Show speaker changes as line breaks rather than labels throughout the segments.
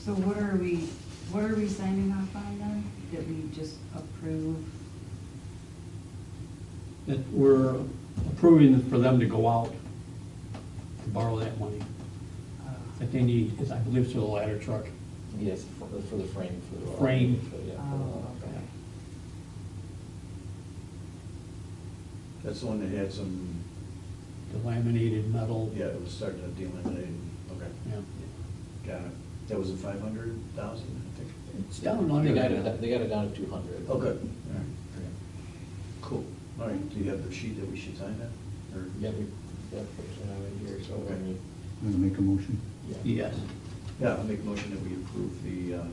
So what are we, what are we signing off on then? That we just approve?
that we're approving for them to go out to borrow that money
uh,
that they need, because I believe it's for the ladder truck.
Yes, for the- for the frame. for the-
Frame.
for- yeah, for the-
Oh, okay.
That's the one that had some,
The laminated metal.
yeah, it was starting to delaminate, okay.
Yeah.
Got it. That was a five hundred thousand, I think.
It's down
They
under
got it,
that.
do- they got it down to two hundred.
Oh, good. All right. Cool. All right, do you have the sheet that we should sign that? Or-
Yeah, we, yeah, I have it here, so when you.
I'm gonna make a motion.
Yes.
Yeah, I'll make a motion that we approve the uh,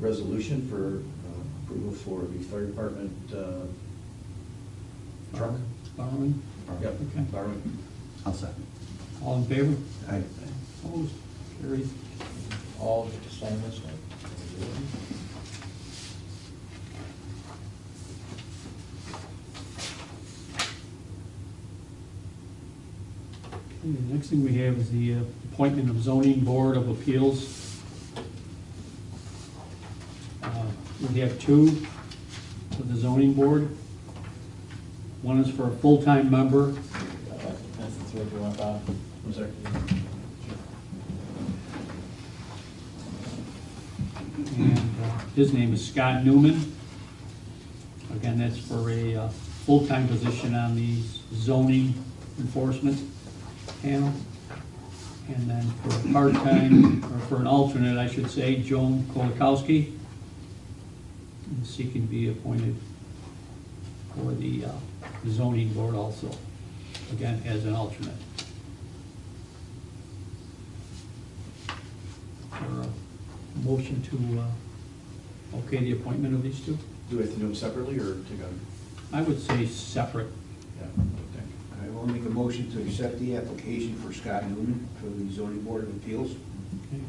resolution for uh, approval for the fire department uh, truck.
Borrowing.
Yep,
Okay.
borrowing.
I'll second.
All in favor?
I,
Opposed? Carried.
All the assignments, right?
Okay, The next thing we have is the uh, appointment of zoning board of appeals. Uh, We have two for the zoning board. One is for a full-time member,
Uh, That's the three you want, Bob?
I'm sorry.
and uh, his name is Scott Newman. Again, that's for a uh, full-time position on the zoning enforcement panel. And then for a part-time, or for an alternate, I should say, Joan Kolakowski. And she can be appointed for the uh, zoning board also, again, as an alternate. Or a motion to, uh, okay, the appointment of these two?
Do we have to do them separately or together?
I would say separate.
Yeah, I would think.
I will make a motion to accept the application for Scott Newman for the zoning board of appeals.
Okay.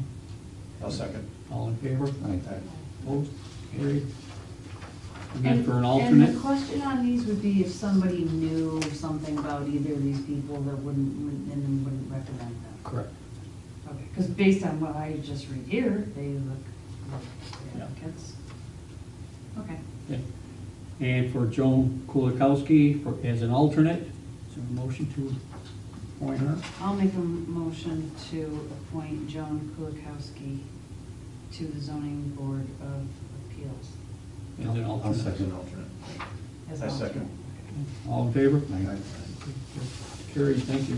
I'll second.
All in favor?
I,
Opposed? Carried. Again, for an
And
alternate?
the question on these would be if somebody knew something about either of these people that wouldn't, wouldn't- and then wouldn't recommend them.
Correct.
Okay, because based on what I just read here, they look, look, they
Yeah.
look, it's- okay.
Okay. And for Joan Kulikowski for, as an alternate, is there a motion to appoint her?
I'll make a m- motion to appoint Joan Kulikowski to the zoning board of appeals.
As an
I'll
alternate.
As an
second.
alternate.
as
I
an
second.
alternate.
All in favor?
I-
Carried, thank you.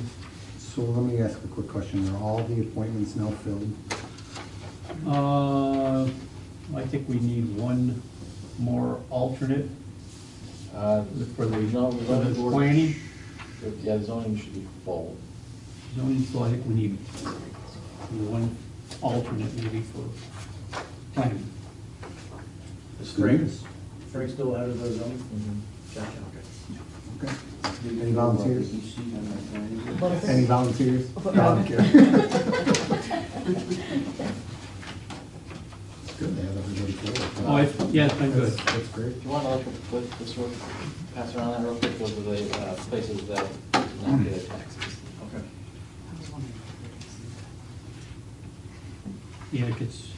So let me ask a quick question. Are all the appointments now filled?
Uh, I think we need one more alternate
Uh,
for the,
No,
for the
zoning board.
planning.
should- Yeah, zoning should be full.
Zoning, so I think we need one alternate maybe for planning.
Is
There
Frank,
is.
Frank still out of the zoning?
Mhm.
Gotcha, okay.
Okay. Any volunteers?
You see on my plan?
Any volunteers? No, I'm kidding. It's good to have everybody filled.
Oh, it's, yeah, it's been good.
That's- That's great.
Do you want to look at what this real, pass around that real quick, those are the uh, places that not
Mm-hmm.
get taxes.
Okay.
I was wondering if
Yeah, it gets,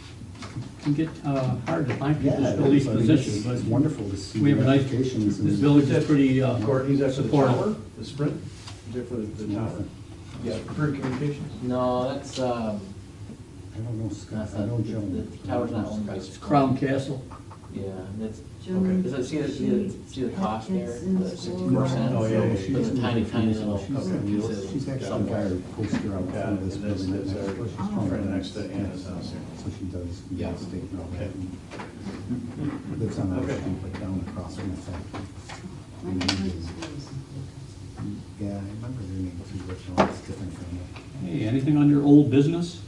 can get uh, hard to find people to
Yeah,
fill these
I mean, it's-
positions, but.
It's wonderful to see
We have
the
a nice,
applications. and-
this village is pretty uh,
Courtney's after the tower,
supportive.
the Sprint, is there for the the tower?
Yeah.
Sprint Communications?
No, that's, um,
I don't know
that's
Scott, I
not,
know Joan.
the
but I
tower's
don't
not
know
owned by.
Scott.
Sprint.
Crown Castle,
Yeah, and it's,
Joan,
Is it- see the- see the- see the
she
cost
had
there,
kids in
the
school.
60%?
Oh, yeah, yeah, yeah.
She's-
It's a tiny, tiny little-
She's-
Okay.
She's actually got her poster out
Yeah,
front of
and
this
that's, that's
building. She's
our
from-
friend next to Anna's house here.
So she does
Yeah.
real estate and all that.
Okay.
and Lives on our
Okay.
street, but down across from the factory.
My husband's school is in Kulikowski.
Yeah, I remember their name too, but no, it's different from that.
hey, anything on your old business?